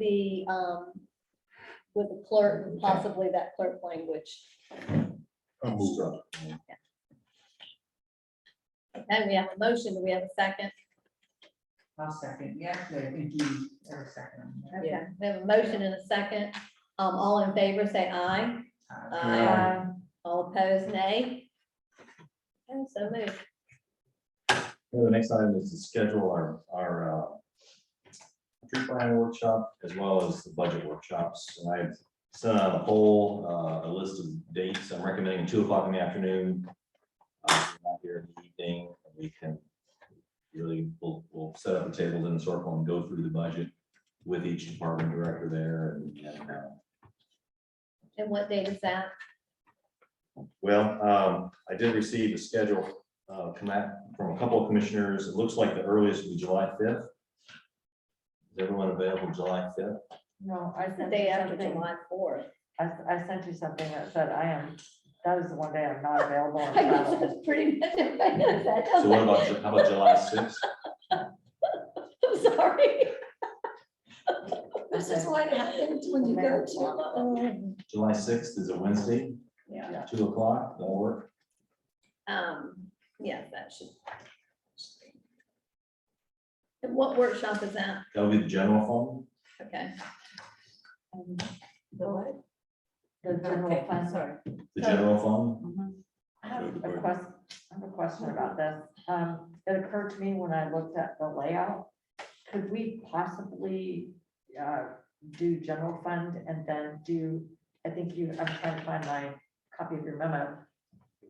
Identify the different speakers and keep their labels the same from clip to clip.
Speaker 1: the, um, with the clerk, and possibly that clerk language.
Speaker 2: I'll move up.
Speaker 1: And we have a motion, do we have a second?
Speaker 3: I'll second, yeah, I think you are second.
Speaker 1: Okay, We have a motion and a second. Um, all in favor, say aye.
Speaker 2: Aye.
Speaker 1: All opposed, nay. And so moved.
Speaker 4: Well, The next item is to schedule our, our uh, tree plan workshop as well as the budget workshops. And I've sent out a poll, uh, a list of dates. I'm recommending two o'clock in the afternoon. Uh, if you're Not here in the evening, we can really, we'll, we'll set up the tables in a circle and go through the budget with each department director there and, and, uh,
Speaker 1: And what date is that?
Speaker 4: well, um, I did receive a schedule, uh, come out from a couple of commissioners. It looks like the earliest would be July fifth. Is everyone available July fifth?
Speaker 5: No, I
Speaker 1: The
Speaker 5: sent
Speaker 1: day
Speaker 5: you
Speaker 1: after
Speaker 5: something.
Speaker 1: July fourth.
Speaker 5: I, I sent you something that said I am, that was the one day I'm not available. on
Speaker 1: I guess
Speaker 5: travel.
Speaker 1: that's pretty much it.
Speaker 4: So what about, Ju- how about July sixth?
Speaker 1: I'm sorry.
Speaker 6: This is what happens when you go to. uh,
Speaker 4: July sixth is a Wednesday,
Speaker 5: Yeah.
Speaker 4: two o'clock, that'll work.
Speaker 1: Um, yeah, that should. And what workshop is that?
Speaker 4: That'll be the general
Speaker 1: Okay,
Speaker 5: Um,
Speaker 6: The what?
Speaker 5: The general
Speaker 3: Okay,
Speaker 5: plan.
Speaker 3: sorry.
Speaker 4: fund, the general fund.
Speaker 5: Mhm. I have
Speaker 2: Good
Speaker 5: a
Speaker 2: word.
Speaker 5: question, I have a question about this. Um, it occurred to me when I looked at the layout. Could we possibly, uh, do general fund and then do, I think you, I'm trying to find my copy of your memo.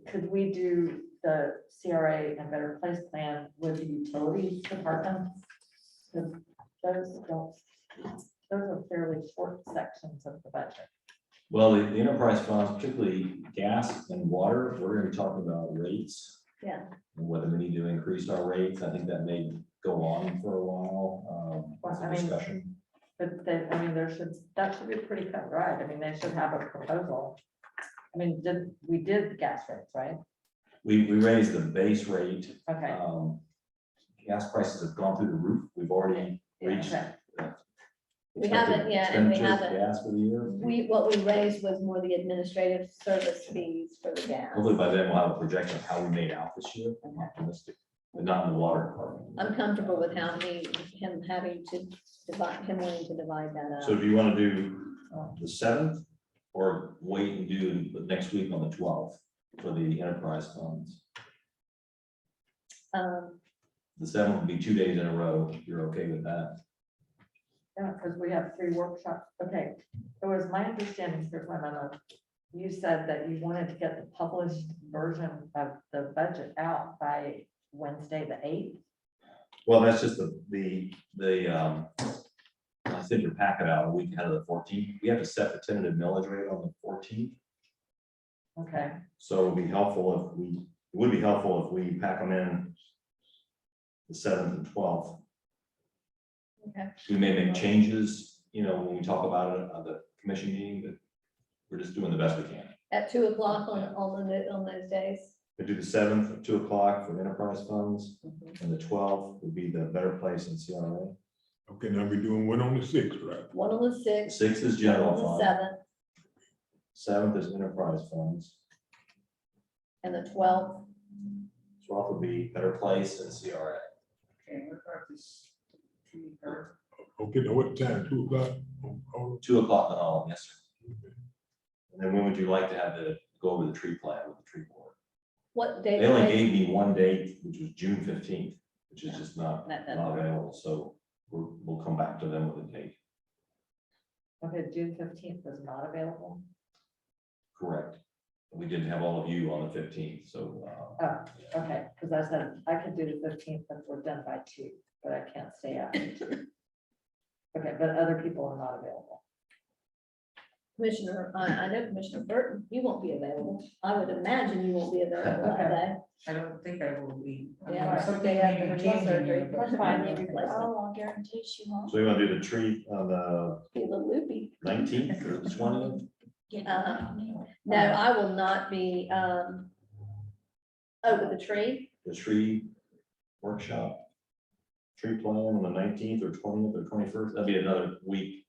Speaker 5: Could we do the CRA and Better Place Plan with the utilities department? 'Cause Those don't, those are fairly short sections of the budget.
Speaker 4: Well, the the enterprise funds, particularly gas and water, we're gonna be talking about rates.
Speaker 1: Yeah.
Speaker 4: And whether we need to increase our rates, I think that may go on for a while, um, as
Speaker 5: Well, I
Speaker 4: a
Speaker 5: mean-
Speaker 4: discussion.
Speaker 5: But they, I mean, there should, that should be pretty cut and dried. I mean, they should have a proposal. I mean, did, we did gas rates, right?
Speaker 4: We, we raised the base rate,
Speaker 5: Okay.
Speaker 4: um, gas prices have gone through the roof, we've already reached.
Speaker 5: Okay.
Speaker 1: We haven't yet, and we
Speaker 4: expected expenditure
Speaker 1: haven't.
Speaker 4: for Gas for the year,
Speaker 1: we, what we raised was more the administrative service fees for the gas.
Speaker 4: hopefully by then we'll have a projection of how we made out this year, I'm optimistic, but not in the water department.
Speaker 1: I'm comfortable with how he, him having to divide, him wanting to divide that
Speaker 4: So
Speaker 1: up.
Speaker 4: do you want to do um, the seventh or wait and do the next week on the twelfth for the enterprise funds?
Speaker 1: Um,
Speaker 4: The seventh would be two days in a row. if You're okay with that?
Speaker 5: Yeah, because we have three workshops. Okay. It was my understanding, here's my memo. You said that you wanted to get the published version of the budget out by Wednesday, the eighth.
Speaker 4: Well, that's just the, the, the, um, I sent your packet out a week ahead of the fourteenth. We have to set the tentative millage rate on the fourteenth.
Speaker 5: Okay.
Speaker 4: So it'd be helpful if we, it would be helpful if we pack them in the seventh and twelfth.
Speaker 1: Okay.
Speaker 4: We may make changes, you know, when we talk about it at the commission meeting, but we're just doing the best we can.
Speaker 1: at two o'clock on, on the, on those days.
Speaker 4: We do the seventh at two o'clock for enterprise funds, and the twelfth would be the better place in CRA.
Speaker 2: Okay, now we're doing one on the sixth, right?
Speaker 1: One on the sixth,
Speaker 4: Sixth is
Speaker 1: one on
Speaker 4: general
Speaker 1: the
Speaker 4: fund,
Speaker 1: seventh,
Speaker 4: seventh is enterprise funds,
Speaker 1: and the twelfth.
Speaker 4: twelfth would be better place in CRA.
Speaker 3: Okay, what about this? tree perk?
Speaker 2: Okay, now what time? Two o'clock? Oh,
Speaker 4: Two o'clock on all, of them, yes, sir. And then when would you like to have the, go over the tree plan with the tree board?
Speaker 1: What
Speaker 4: They
Speaker 1: date?
Speaker 4: only gave me one date, which was June fifteenth, which is just not,
Speaker 1: That- that-
Speaker 4: not available, so we'll, we'll come back to them with a date,
Speaker 5: Okay, June fifteenth is not available.
Speaker 4: correct? We didn't have all of you on the fifteenth, so, uh,
Speaker 5: Oh, okay, because I said I could do the fifteenth if we're done by two, but I can't stay after two. Okay, but other people are not available.
Speaker 1: Commissioner, I, I know Commissioner Burton, you won't be available. I would imagine you won't be available that day.
Speaker 3: I don't think I will be. I mean,
Speaker 1: Yeah,
Speaker 3: something
Speaker 1: day
Speaker 3: may
Speaker 1: after
Speaker 3: be
Speaker 1: her
Speaker 3: changing
Speaker 1: surgery.
Speaker 3: here, but-
Speaker 1: That's fine, you replace it.
Speaker 6: Oh, I guarantee she won't.
Speaker 4: so you want to do the tree on the
Speaker 1: Be a little loopy.
Speaker 4: nineteenth or the twentieth?
Speaker 6: get it
Speaker 1: Uh-huh.
Speaker 6: out anyway.
Speaker 1: No, I will not be, um, over the tree.
Speaker 4: The tree workshop? Tree plan on the nineteenth or twentieth or twenty-first, that'd be another week